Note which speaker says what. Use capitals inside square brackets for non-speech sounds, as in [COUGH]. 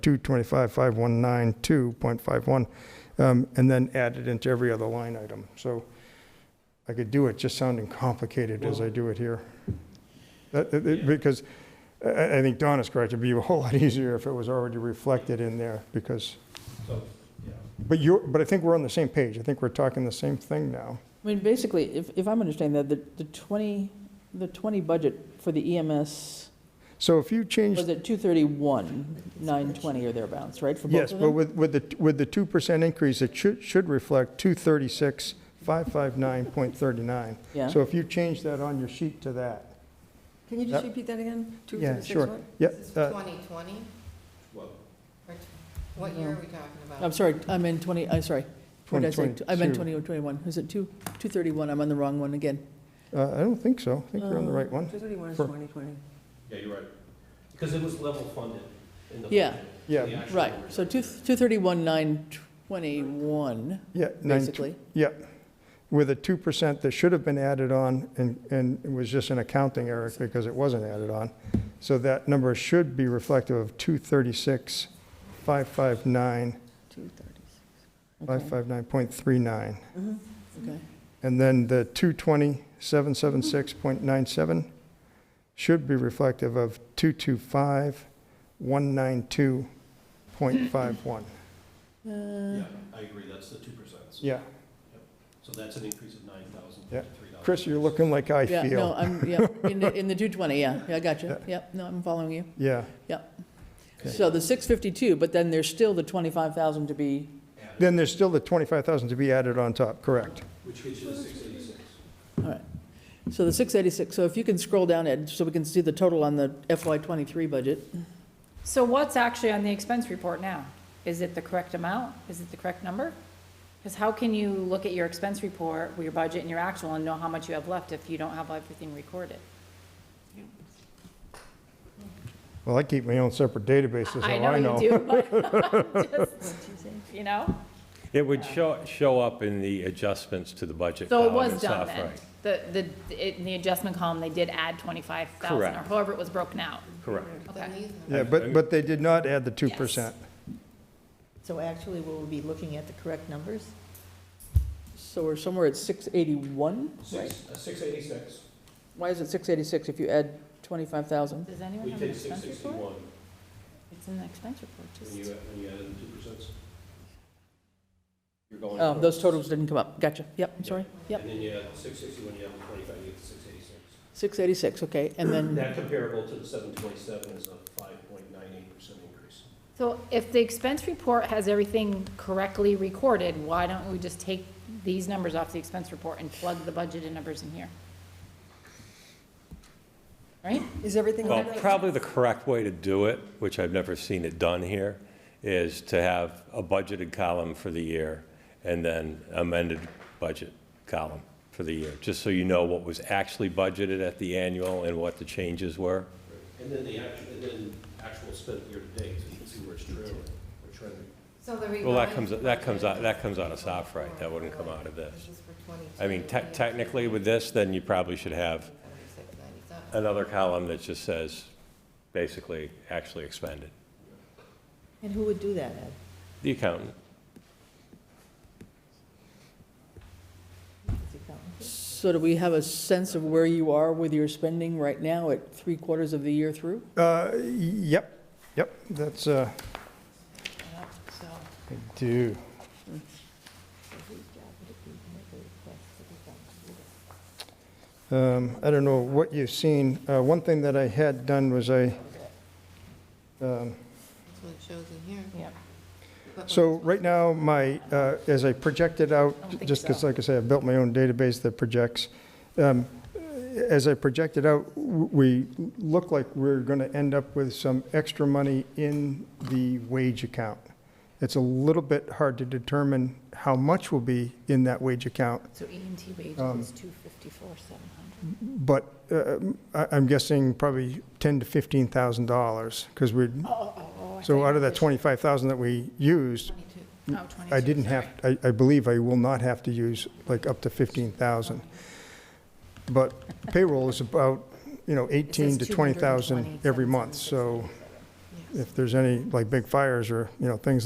Speaker 1: 225.519.2.51, um, and then add it into every other line item. So I could do it just sounding complicated as I do it here. That- that- that- Because I- I I think Donna's correct, it'd be a whole lot [LAUGHS] easier if it was already reflected in there, because,
Speaker 2: So, yeah.
Speaker 1: but you're, but I think we're on the same page. I think we're talking the same thing now.
Speaker 3: I mean, basically, if, if I'm understanding that, the, the 20, the 20 budget for the EMS
Speaker 1: So if you change
Speaker 3: was at 231, 920 or thereabouts, right? for both
Speaker 1: Yes,
Speaker 3: of
Speaker 1: but
Speaker 3: them?
Speaker 1: with, with the, with the 2% increase, it should, should reflect 236,559.39.
Speaker 3: Yeah.
Speaker 1: So if you change that on your sheet to that.
Speaker 4: Can you
Speaker 1: Yep.
Speaker 4: just repeat that again? Two,
Speaker 1: Yeah,
Speaker 4: three, six,
Speaker 1: sure.
Speaker 4: what?
Speaker 1: Yeah,
Speaker 5: This is
Speaker 1: uh,
Speaker 5: 2020?
Speaker 2: Well,
Speaker 5: Or t- What year are we talking about?
Speaker 3: I'm sorry, I meant 20, I'm sorry. What did I say? I meant
Speaker 1: 2022.
Speaker 3: 20 or 21. Is it 2, 231? I'm on the wrong one again.
Speaker 1: uh, I don't think so. I think we're on the
Speaker 3: Um,
Speaker 1: right
Speaker 5: Uh,
Speaker 1: one.
Speaker 4: Two thirty-one is
Speaker 1: For-
Speaker 4: twenty twenty.
Speaker 2: yeah, you're right. Because it was level funded in the.
Speaker 3: Yeah.
Speaker 2: budget,
Speaker 1: Yeah.
Speaker 2: the actual
Speaker 3: Right,
Speaker 2: original.
Speaker 3: so 2 231, 921,
Speaker 1: Yeah. nine tw-
Speaker 3: basically.
Speaker 1: Yeah, with a 2% that should have been added on and, and it was just an accounting error because it wasn't added on. So that number should be reflective of 236,559.39.
Speaker 4: Two thirty. Mm-hmm.
Speaker 3: Okay.
Speaker 1: And then the
Speaker 5: Mm-hmm.
Speaker 1: 220,776.97 should be reflective of 225,192.51.
Speaker 5: [LAUGHS]
Speaker 2: Yeah, I agree, that's the two percent.
Speaker 1: Mm-hmm. Yeah,
Speaker 2: So that's an increase of nine thousand
Speaker 1: Yeah.
Speaker 2: fifty-three dollars.
Speaker 1: Chris, you're looking like I
Speaker 3: Yeah, no,
Speaker 1: feel.
Speaker 3: I'm, yeah, in the, in the 220, yeah, yeah, I got you.
Speaker 1: Yeah.
Speaker 3: Yep, no, I'm following you.
Speaker 1: Yeah,
Speaker 3: So the 652, but then there's still the 25,000 to be,
Speaker 1: then there's still the 25,000 to be added on top, correct?
Speaker 2: Which gets you to six eighty-six.
Speaker 3: all right. So the 686, so if you can scroll down, Ed, so we can see the total on the FY '23 budget.
Speaker 6: So what's actually on the expense report now? Is it the correct amount? Is it the correct number? Because how can you look at your expense report, your budget and your actual and know how much you have left if you don't have everything recorded?
Speaker 1: Well, I keep my own separate database, that's
Speaker 6: I
Speaker 1: all I
Speaker 6: know
Speaker 1: know.
Speaker 6: you do, but [LAUGHS] just, you know?
Speaker 7: It would show, show up in the adjustments to the budget
Speaker 6: So it
Speaker 7: column
Speaker 6: was
Speaker 7: and
Speaker 6: done
Speaker 7: stuff,
Speaker 6: then.
Speaker 7: right?
Speaker 6: The, the, it- in the adjustment column, they did add twenty-five thousand or
Speaker 7: Correct.
Speaker 6: however it was broken out.
Speaker 7: Correct.
Speaker 5: Then
Speaker 6: Okay.
Speaker 5: these numbers-
Speaker 1: Yeah, but, but they did not add the 2%.
Speaker 8: So actually, will we be looking at the correct numbers?
Speaker 3: So we're somewhere at 681?
Speaker 2: Six, uh, six eighty-six.
Speaker 3: Why is it 686 if you add 25,000?
Speaker 6: Does anyone
Speaker 2: We
Speaker 6: have an
Speaker 2: did six
Speaker 6: expense report?
Speaker 2: sixty-one
Speaker 6: It's in the expense report,
Speaker 2: when you,
Speaker 6: just,
Speaker 2: when you added the two percent. You're going.
Speaker 3: Oh, those
Speaker 2: from-
Speaker 3: totals didn't come up. Gotcha. Yep, I'm sorry. Yep,
Speaker 2: And then you add six sixty-one, you have the twenty-five, you get the six eighty-six.
Speaker 3: 686, okay, and then.
Speaker 2: That comparable to the seven twenty-seven is a five point nine eight percent increase.
Speaker 6: so if the expense report has everything correctly recorded, why don't we just take these numbers off the expense report and plug the budgeted numbers in here? Right?
Speaker 4: Is everything
Speaker 7: Well,
Speaker 4: on that?
Speaker 7: probably the correct way to do it, which I've never seen it done here, is to have a budgeted column for the year and then amended budget column for the year, just so you know what was actually budgeted at the annual and what the changes were.
Speaker 2: And then the actual, and then actual spent year to date, so you can see where it's trailing, or trending.
Speaker 5: So the
Speaker 7: Well, that
Speaker 5: revised
Speaker 7: comes, that comes out,
Speaker 5: budget
Speaker 7: that comes out of
Speaker 5: is
Speaker 7: soft right, that wouldn't come
Speaker 5: 24.
Speaker 7: out of this.
Speaker 5: This is for 22,
Speaker 7: I mean, te-
Speaker 5: 26,
Speaker 7: technically with this, then you probably should have
Speaker 5: 97.
Speaker 7: another column that just says, basically, actually expended.
Speaker 8: And who would do that, Ed?
Speaker 7: The accountant.
Speaker 8: Is it accountant?
Speaker 3: So do we have a sense of where you are with your spending right now at three quarters of the year through?
Speaker 1: Uh, Yep, yep, that's, uh,
Speaker 6: Yep, So,
Speaker 1: I do. Um, I don't know what you've seen. Uh, One thing that I had done was I, um,
Speaker 5: That's what it shows in here.
Speaker 6: yep.
Speaker 5: But
Speaker 1: so right now, my, uh, as I projected out,
Speaker 6: I don't think
Speaker 1: just because,
Speaker 6: so.
Speaker 1: like I say, I've built my own database that projects. um, As I projected out, w- we look like we're going to end up with some extra money in the wage account. It's a little bit hard to determine how much will be in that wage account,
Speaker 6: So E and T wages is two fifty-four, seven hundred.
Speaker 1: but uh, I- I'm guessing probably ten to $15,000, because we're, so out of that 25,000 that we used,
Speaker 5: 22.
Speaker 6: Oh,
Speaker 1: I
Speaker 6: 22,
Speaker 1: didn't have, I, I believe I will not have to use like up to 15,000. But payroll is about, you know, 18 to 20,000 every month, so
Speaker 5: Yes.
Speaker 1: if there's any, like, big fires or, you know, things